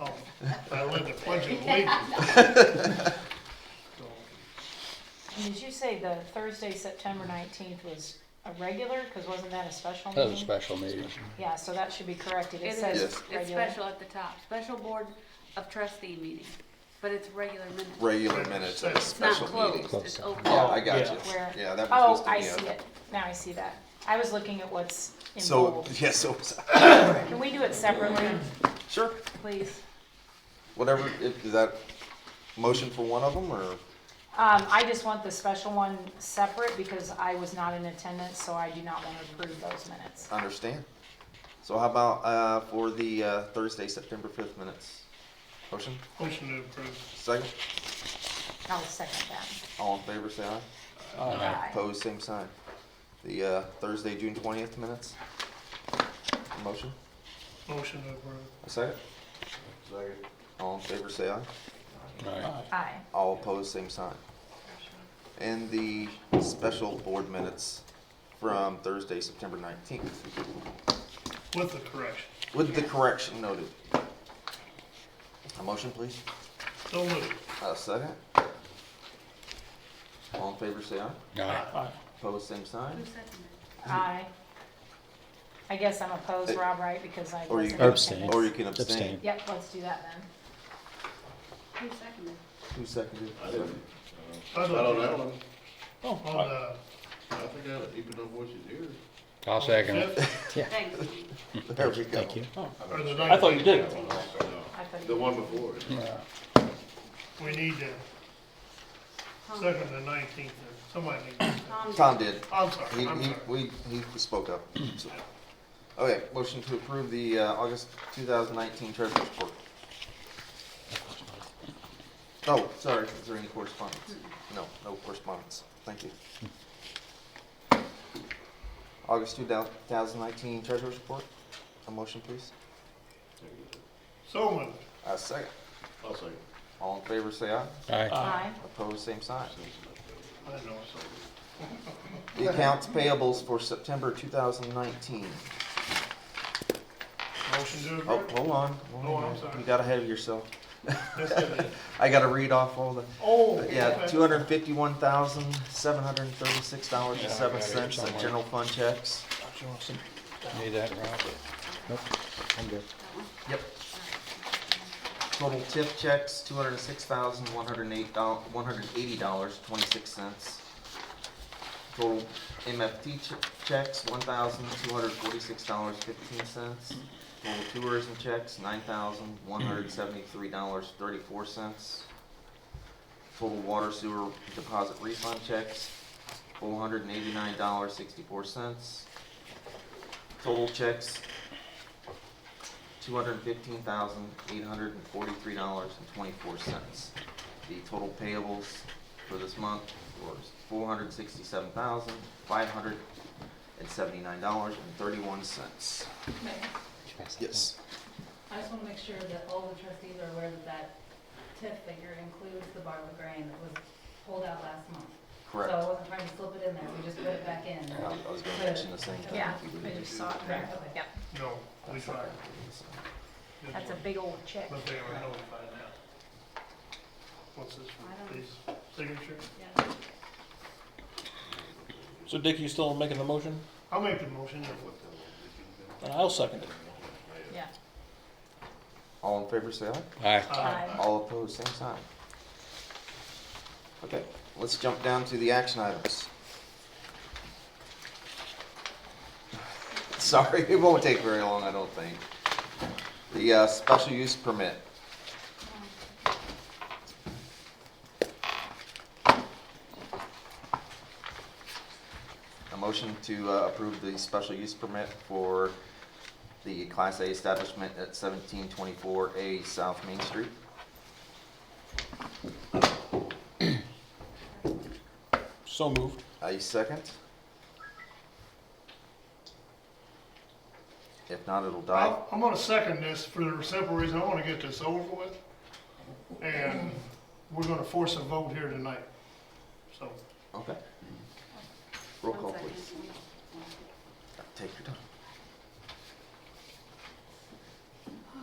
Oh, I read the Pledge of Allegiance. So, And Did you say the Thursday, September nineteenth was a regular, cause wasn't that a special That was a meeting? special meeting. Yeah, so that should be corrected, It it is, says Yes. it's regular. special at the top, special board of trustee meeting, but it's regular minutes. Regular minutes of a It's not special meeting. closed, it's open. Yeah, I got Yeah. Where- you. Yeah, that was Oh, supposed to be. I on see there. it, now I see that, I was looking at what's in So, bold. yeah, so, Can we do it separately, sure, please? whatever, if- is that motion for one of them, or? Um, I just want the special one separate because I was not in attendance, so I do not want to approve those minutes. Understand. So how about, uh, for the, uh, Thursday, September fifth minutes? Motion, Motion to approve. second, I'll second that. all in favor, say aye. Aye. Opposed, same sign. The, uh, Thursday, June twentieth minutes? Motion, Motion to approve. a second? Second. All in favor, say aye. Aye. Aye. All opposed, same sign. And the special board minutes from Thursday, September nineteenth, With the correction. with the correction noted. A motion, please? So moved. A second? All in favor, say aye. Aye. Opposed, same sign. Who seconded? Aye. I guess I'm opposed, Rob, right, because I Or wasn't. you can in Abstain. attendance. Or you can abstain. Abstain. Yep, let's do that then. Who seconded? Who seconded? I I don't don't know. know. Oh, On the I think I, even though voice is here. I'll second it. fifth Thanks. Lee. There we go. Thank you. or the I thought ninth, you did. I thought The you- one before it. we need to Tom, second the nineteenth, somebody needs to. Tom, Tom did. I'm He, sorry, I'm he, sorry. we, he spoke up. So- Okay, motion to approve the, uh, August two thousand nineteen treasurer's report. Oh, sorry, is there any correspondence? No, no correspondence. Thank you. August two thousand nineteen treasurer's report. A motion, please. So moved. A second. I'll second. All in favor, say aye. Aye. Aye. Opposed, same sign. I know, so. The accounts payables for September 2019. Motion to Oh, approve. hold on. Oh, hold I'm on. sorry. You got ahead of yourself. That's it. I gotta read off all the, Oh. yeah, okay. two hundred fifty-one thousand, seven hundred and thirty-six dollars and seven Yeah, I got it cents of somewhere. general fund checks. Need that, Rob? Nope. I'm good. Yep. Total tip checks, two hundred and six thousand, one hundred and eight dollars one hundred and eighty dollars, twenty-six cents. Total MFT che- checks, one thousand, two hundred and forty-six dollars, fifteen cents. Total tourism checks, nine thousand, one hundred and seventy-three dollars, thirty-four cents. Total water sewer deposit refund checks, four hundred and eighty-nine dollars, sixty-four cents. Total checks, two hundred and fifteen thousand, eight hundred and forty-three dollars and twenty-four cents. The total payables for this month was four hundred sixty-seven thousand, five hundred and seventy-nine dollars and thirty-one cents. Mayor, Yes. I just want to make sure that all the trustees are aware that that TIF figure includes the barley grain that was pulled out last month. So I Correct. wasn't trying to slip it in there, we just put it back in. I I was gonna mention the same thing. Yeah, I just saw it there. Okay. Yep, No, we tried. Good that's a work. big old check. But they were notified now. What's this, I don't- these signature? Yeah. So Dick, you still making the motion? I'll make the motion. And I'll second it. Yeah. All in favor, say aye. Aye. Uh, Aye. All opposed, same sign. Okay, let's jump down to the action items. Sorry, it won't take very long, I don't think. The uh, special use permit. A motion to uh, approve the special use permit for the Class A establishment at 1724A South Main Street. So moved. A second? If not, it'll die. I'll- I'm gonna second this for the simple reason, I wanna get this over with. And we're gonna force a vote here tonight. So, Okay. Roll one call, second. please. Take your time.